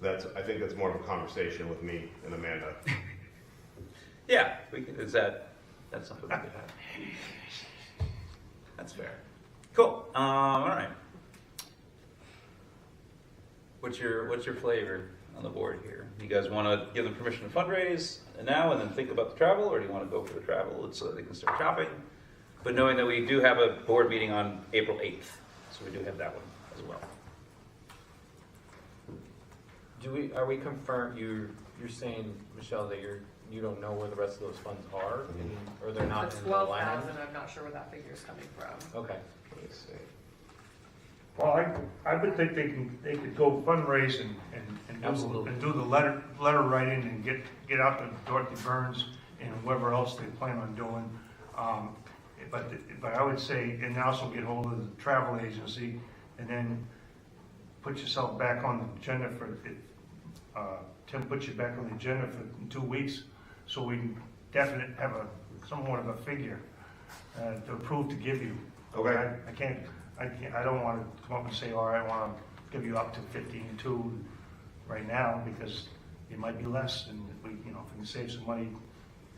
That's, I think that's more of a conversation with me and Amanda. Yeah, we can, is that, that's something we could have. That's fair. Cool, um, all right. What's your, what's your flavor on the board here? You guys wanna give them permission to fundraise now and then think about the travel, or do you wanna go for the travel so that they can start shopping? But knowing that we do have a board meeting on April eighth, so we do have that one as well. Do we, are we confirmed, you're, you're saying, Michelle, that you're, you don't know where the rest of those funds are? and- Or they're not The in the twelve line? item? thousand, I'm not sure where that figure's coming from. Okay, Let me see. Well, I, I would think they can, they could go fundraise and, and- and do, Absolutely. and do the letter, letter writing and get, get out to Dorothy Burns and whoever else they plan on doing. Um, But, but I would say, and also get hold of the travel agency and then put yourself back on the agenda for, it- uh, Tim, put you back on the agenda for two weeks so we can definitely have a, somewhat of a figure uh, to approve to give you. Okay. I- I can't, I can't, I don't want to come up and say, all right, I want to give you up to fifteen two right now because it might be less and we, you know, if we can save some money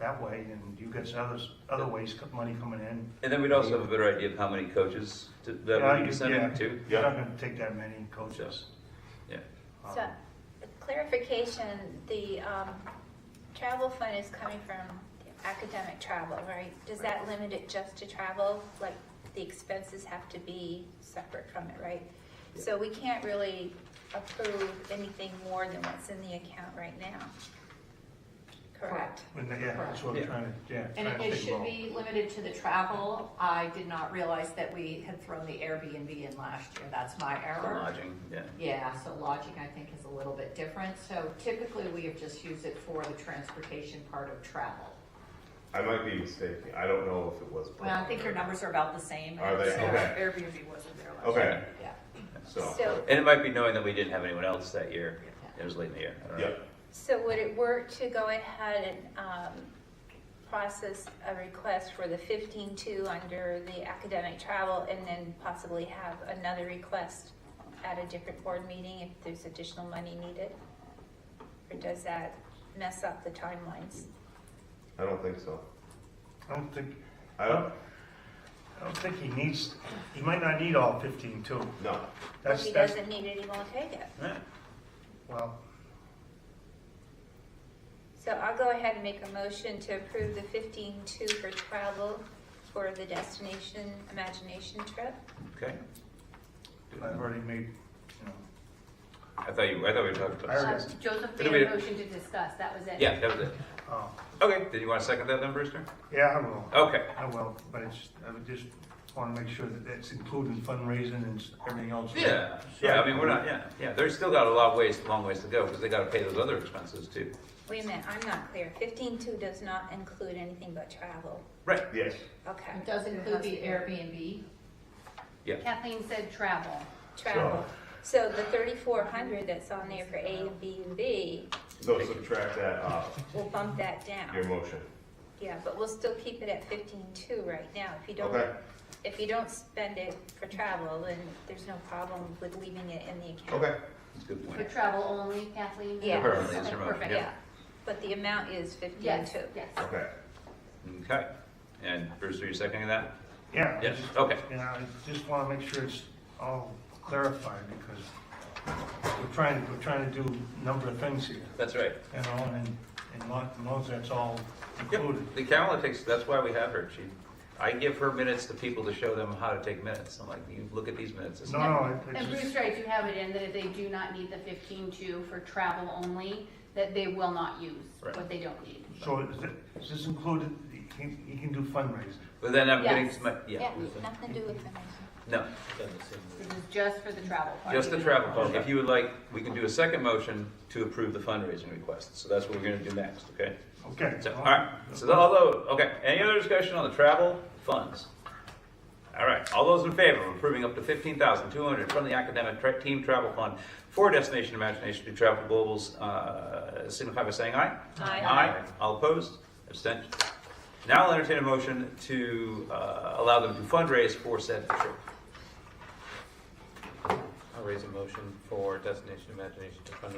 that way and you get some others, other ways, co- money coming in. And then we'd also have a better idea of how many coaches to- that Yeah, we'd you- be sending yeah, to. You're not going to take that many coaches. Yeah. Um, So, clarification, the um, travel fund is coming from academic travel, right? Does that limit it just to travel? Like, the expenses have to be separate from it, right? So we can't really approve anything more than what's in the account right now. Correct? when they- Yeah, that's what Yeah. I'm trying to, yeah. And trying to it think should about. be limited to the travel. I did not realize that we had thrown the Airbnb in last year. That's my For error. lodging, yeah. Yeah, so lodging, I think, is a little bit different. So typically, we have just used it for the transportation part of travel. I might be mistaken. I don't know if it was. Well, I think your numbers are about the same. Are they? So, Okay. Airbnb wasn't there last year. Okay, Yeah. so, So, And it might be knowing that we didn't have anyone else that year. Yeah. It was late in the year. I don't know. yeah, so would it work to go ahead and um, process a request for the 15-2 under the academic travel and then possibly have another request at a different board meeting if there's additional money needed? Or does that mess up the timelines? I don't think so. I don't think, I don't, I don't think he needs, he might not need all fifteen too. no, If That's, he that's, doesn't need it, he won't take it. Yeah. well, So I'll go ahead and make a motion to approve the 15-2 for travel for the destination imagination trip. Okay. I've already made, you know, I thought you, I thought we were talking I about already- this. Uh, Joseph Did made we- a motion to discuss, that was it. Yeah, that was it. oh, Okay, did you want to second that then, Brewster? yeah, I will. Okay, I will, but it's, I would just want to make sure that that's including fundraising and s- everything else. yeah, yeah, I mean, we're not, yeah, yeah, they've still got a lot of ways, long ways to go, because they gotta pay those other expenses too. Wait a minute, I'm not clear. 15-2 does not include anything but travel. Right, yes, Okay, It does include the Airbnb. Kathleen said travel. travel. So the thirty-four hundred that's on there for A and B and B, so subtract that off we'll bump that your down. motion. Yeah, but we'll still keep it at fifteen-two right now. If you don't, Okay, if you don't spend it for travel, then there's no problem with leaving it in the account. okay, that's a good For point. travel only, Kathleen? Yeah. Apparently, it's Okay, remote, perfect. yeah. But the amount is Yes, fifteen-two. yes. okay. Okay, and Brewster, you seconding that? Yeah. I Yes, just- okay. You know, I just want to make sure it's all clarified because we're trying, we're trying to do a number of things here, That's right. you know, and, and long, as long as that's all Yep, included. the Carolyn takes, that's why we have her, she, I give her minutes to people to show them how to take minutes, I'm like, you look at these minutes, it's No, not, no, it- And it's just, Bruce I do have it in that if they do not need the fifteen-two for travel only, that they will not use Right. what they don't need. so is it- is this included, he can, he can do fundraising? but then I'm getting, Yes. my- yeah, Yeah, nothing to do with the no. This is just for the travel part. Just the travel part. If you would like, we can do a second motion to approve the fundraising request. So that's what we're gonna do next, okay? Okay. So, all right. So although, okay, any other discussion on the travel funds? All right, all those in favor of approving up to fifteen thousand two hundred from the academic tra- team travel fund for Destination Imagination to Travel to Global's, uh, signify by saying aye? Aye. Aye. All opposed? Abstentions? Now I'll entertain a motion to, uh, allow them to fundraise for said trip. I'll raise a motion for Destination Imagination to fund